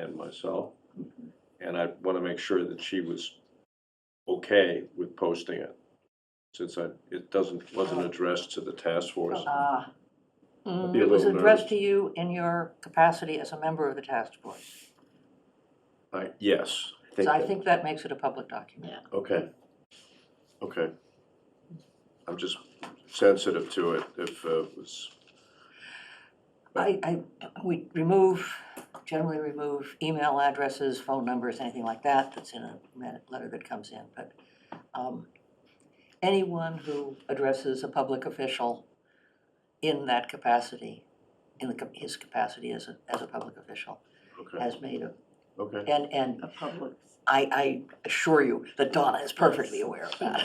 and myself. And I want to make sure that she was okay with posting it, since I, it doesn't, wasn't addressed to the task force. Ah, I'd be a It was little addressed nervous. to you in your capacity as a member of the task force. I- Yes. So I that- think that makes it a public document. Okay. Okay. I'm just sensitive to it if uh, it was, I, I, we remove, generally remove email addresses, phone numbers, anything like that that's in a minute- letter that comes in, but um, anyone who addresses a public official in that capacity, in the, cap- his capacity as a, as a public official, okay, has made a, okay. and, and a public. I, I assure you that Donna is perfectly aware of that.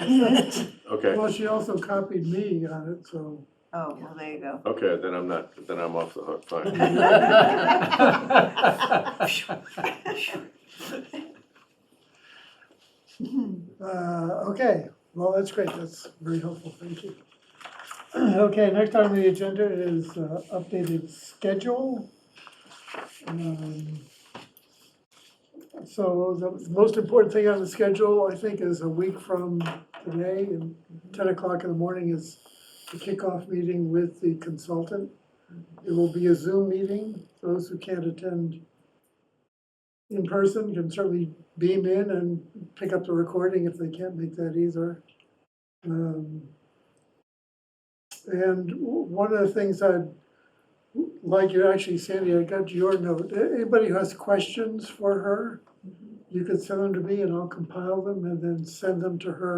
Okay, Well, she also copied me on it, so. Oh, well, there you go. okay, then I'm not, then I'm off the hook, fine. Uh, okay, well, that's great, that's very helpful, thank you. Okay, next on the agenda is uh, updated schedule. Um, So the most important thing on the schedule, I think, is a week from today, and ten o'clock in the morning is the kickoff meeting with the consultant. It will be a Zoom meeting, those who can't attend in person can certainly beam in and pick up the recording if they can't make that either. Um, And w- one of the things I'd like you, actually Sandy, I got your note, A- anybody who has questions for her, you could send them to me and I'll compile them and then send them to her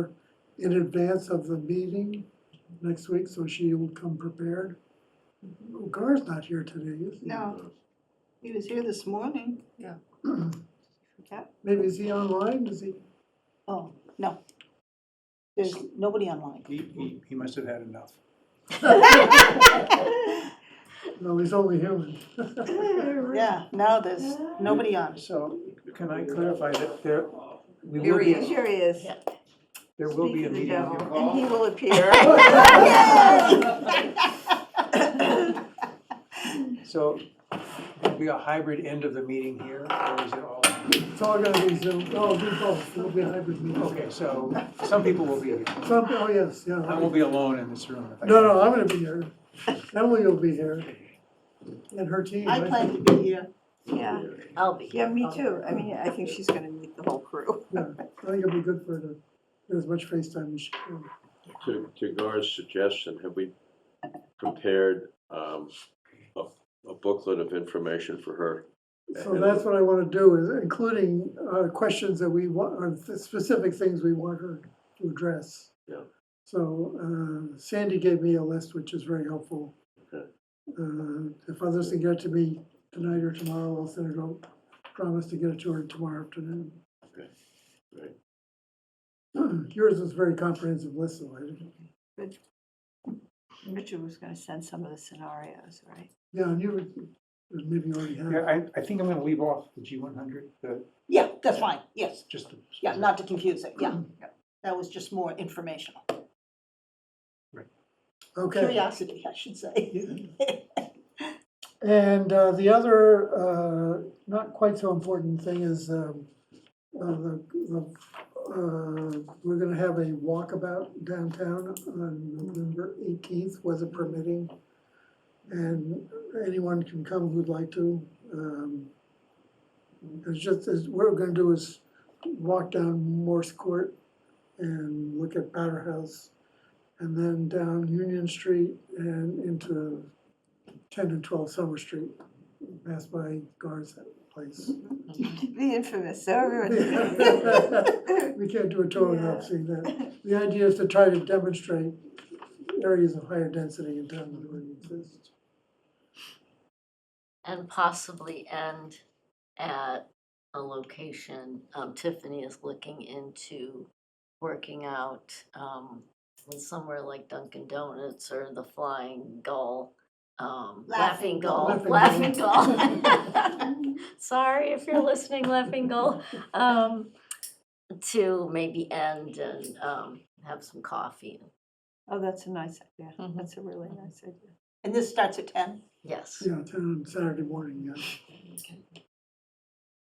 in advance of the meeting next week, so she will come prepared. Gar's not here today, is he? No, he was here this morning. Yeah. Forgot. Maybe is he online, is he? Oh, no. There's nobody online. He, he, he must have had enough. No, he's only human. Yeah, no, there's nobody on. So can I clarify that there, we Here will he be, is. Here he is. there will be Speak a of the meeting. devil, here. And he will appear. So it'll be a hybrid end of the meeting here, or is it all? It's all gonna be Zoom, oh, do both, it'll be a hybrid meeting. Okay, so some people will be here. Some, oh, yes, yeah. I won't be alone in this room. if I- No, no, I'm gonna be here. Emily will be here. And her team. I right? plan to be here. Yeah, I'll be. yeah, me too. I mean, I think she's gonna meet the whole crew. Yeah, I think it'll be good for her to get as much face time as she can. To, to Gar's suggestion, have we prepared um, a a booklet of information for her? So that's what I wanna do, is including, uh, questions that we want, or the specific things we want her to address. Yeah. So, uh, Sandy gave me a list, which is very helpful. Okay. Uh, if others can get it to me tonight or tomorrow, I'll send it out, promise to get it to her tomorrow afternoon. Okay, great. Yours was a very comprehensive list, so I didn't, Richard was gonna send some of the scenarios, right? yeah, and you were, maybe you already have. Yeah, I, I think I'm gonna leave off the G one hundred, the, Yeah, that's fine, yes. just. the- Yeah, Mm-hmm. not to confuse it, yeah. That was just more informational. Okay, Curiosity, I should say. and uh, the other, uh, not quite so important thing is, um, uh, the, the, uh, we're gonna have a walkabout downtown on November eighteenth, weather permitting. And anyone can come who'd like to. um, It's just, it's, what we're gonna do is walk down Morse Court and look at Powder House. And then down Union Street and into ten and twelve Summer Street, pass by Gar's place. The infamous, so everyone. Yeah. We can't do a tour without Yeah. seeing that. The idea is to try to demonstrate areas of higher density in town that already exist. and possibly end at a location. Um, Tiffany is looking into working out um, with somewhere like Dunkin' Donuts or the Flying Gull. Um, Laughing laughing Gull. gull, Laughing laughing gull. Sorry if you're listening, laughing gull. Um, to maybe end and um, have some coffee. Oh, that's a nice idea. Mhm. That's a really nice idea. And this starts at ten? Yes. Yeah, town on Saturday morning, yeah.